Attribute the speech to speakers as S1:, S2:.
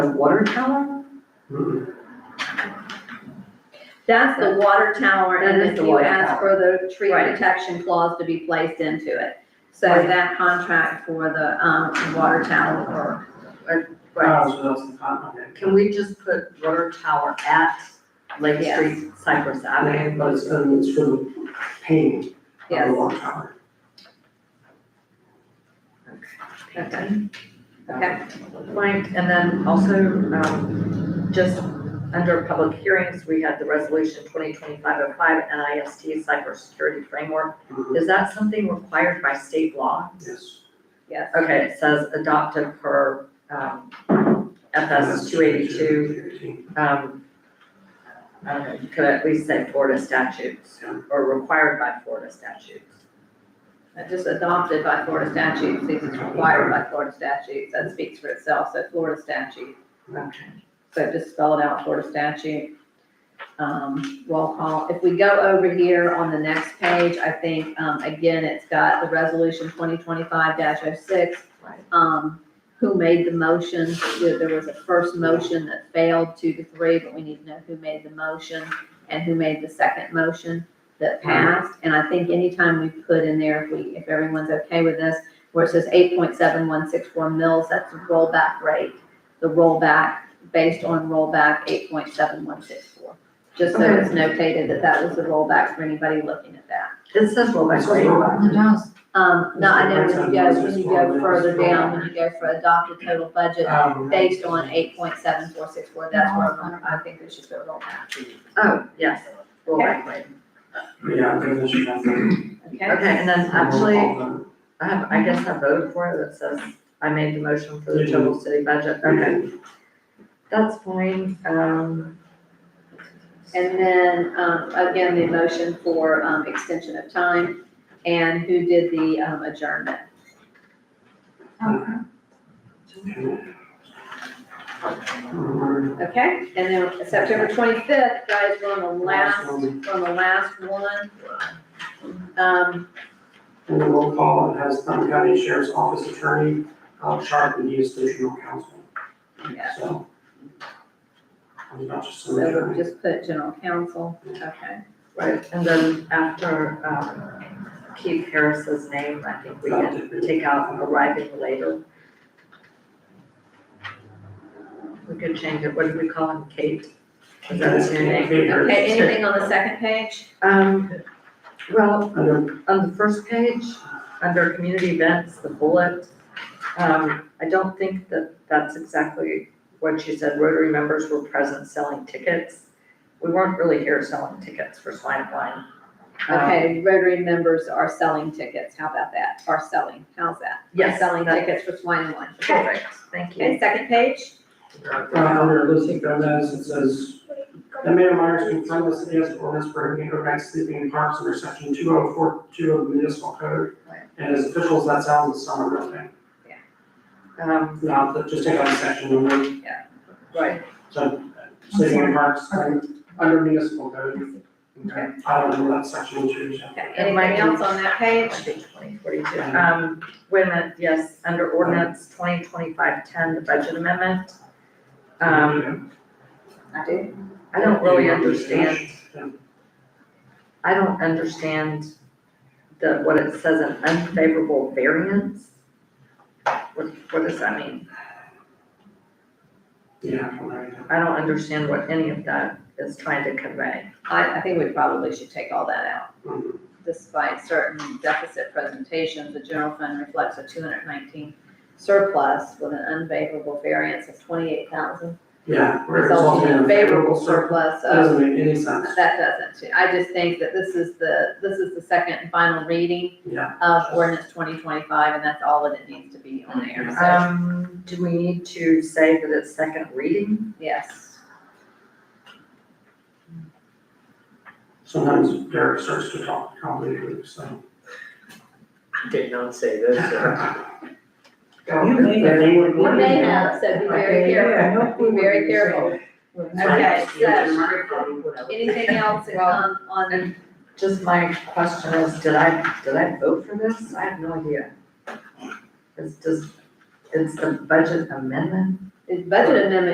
S1: water tower?
S2: That's the water tower,
S1: That
S2: and
S1: is
S2: if
S1: the
S2: you
S1: water
S2: ask for the tree
S1: Right.
S2: protection clause to be placed into it. So
S1: Right.
S2: that contract for the, um, water tower or
S1: Right,
S3: Right.
S1: can we just put water tower at Lake
S2: Yes.
S1: Street Cypress Avenue?
S3: But it's, um, it's for the pain of
S1: Oh,
S2: Yes.
S3: the water tower.
S2: Okay. Okay.
S1: Right, and then also, um, just under public hearings, we had the resolution twenty twenty-five oh five NIST cybersecurity framework.
S3: Mhm.
S1: Is that something required by state law?
S3: Yes.
S2: Yes.
S1: Okay, it says adopted per, um, FS two eighty-two, um, I don't know, you could at least say Florida statutes, um, or required by Florida statutes.
S2: uh, just adopted by Florida statutes, these is required by Florida statutes, that speaks for itself, so Florida statute.
S1: Okay.
S2: So just spell it out, Florida statute. Um, roll call, if we go over here on the next page, I think, um, again, it's got the resolution twenty twenty-five oh 6
S1: Right.
S2: Um, who made the motion, there there was a first motion that failed two to three, but we need to know who made the motion and who made the second motion that passed, and I think anytime we put in there, if we, if everyone's okay with this, where it says eight point seven one six four mils, that's the rollback rate. The rollback, based on rollback eight point seven one six four, just so it's notated that that was the rollback for anybody looking at that.
S1: It says rollback rate.
S2: Um, no, I know when you go, when you go
S3: 8.71640
S2: further down, when you go for adopted total budget,
S3: Um,
S2: based on eight point seven four six four, that's where I'm- I think we should go rollback,
S1: Oh, yes, rollback rate.
S3: Yeah, I'm gonna shoot that thing.
S2: okay?
S1: Okay, and then actually,
S3: Roll call vote.
S1: I have, I guess I voted for it that says I made the motion for the
S3: You did.
S1: Trumbull City budget, okay, that's fine, um.
S2: And then, um, again, the motion for, um, extension of time, and who did the, um, adjournment?
S3: Mhm.
S2: Okay, and then September twenty-fifth, guys, we're on the last,
S3: one.
S2: on the last one. Um,
S3: And the roll call, it has Thumb County Sheriff's Office Attorney, uh, Sharp, and he is the general counsel,
S2: yeah,
S3: so. I was about to
S2: so
S3: say
S2: we'll
S3: that.
S2: just put general counsel, okay.
S1: Right, and then after, um, Keith Harris's name, I think we can take out arriving later. We could change it, what do we call him, Kate? Is that his new name?
S2: Okay, anything on the second page?
S1: Um, well,
S3: Under,
S1: on the first page, under community events, the bullet, um, I don't think that that's exactly what you said, Rotary members were present selling tickets. We weren't really here selling tickets for swine and wine. Um,
S2: Okay, Rotary members are selling tickets, how about that, are selling, how's that?
S1: Yes,
S2: Selling
S1: that-
S2: tickets for swine and wine.
S1: Perfect, thank you.
S2: Okay, second page?
S3: uh, under Elizabeth Gomez, it says, The mayor Myers confirmed the city has an ordinance prohibiting overnight sleeping in parks under section two oh four two of the municipal code.
S2: Right.
S3: And as officials, that sounds a summer real thing,
S1: Um,
S3: not that, just take out the section number,
S1: right,
S3: so sleeping in parks under- under municipal code. Okay, I don't know what that section two is.
S2: Okay, anybody else on that page?
S1: twenty forty-two, um, wait a minute, yes, under ordinance twenty twenty-five ten, the budget amendment. Um,
S2: I do.
S1: I don't really understand, I don't understand the, what it says, an unfavorable variance. What, what does that mean?
S3: Yeah, all right.
S1: I don't understand what any of that is trying to convey.
S2: I, I think we probably should take all that out.
S3: Mhm.
S2: Despite certain deficit presentations, the general fund reflects a two hundred nineteen surplus with an unfavorable variance of twenty-eight thousand,
S3: Yeah. where it's all
S2: resulting in a favorable surplus
S3: That
S2: of
S3: doesn't make any sense.
S2: That doesn't, I just think that this is the, this is the second and final reading
S3: Yeah.
S2: of ordinance twenty twenty-five, and that's all that it needs to be on there,
S1: Um, do we need to say that it's second reading?
S2: so, yes.
S3: Sometimes Derek starts to talk complicated, so.
S4: Did not say this, uh,
S3: You may have.
S2: We may have, so be very careful, be very careful. Okay, so, anything else that come on,
S1: And just my question is, did I, did I vote for this? I have no idea. It's just, it's the budget amendment?
S2: is budget amendment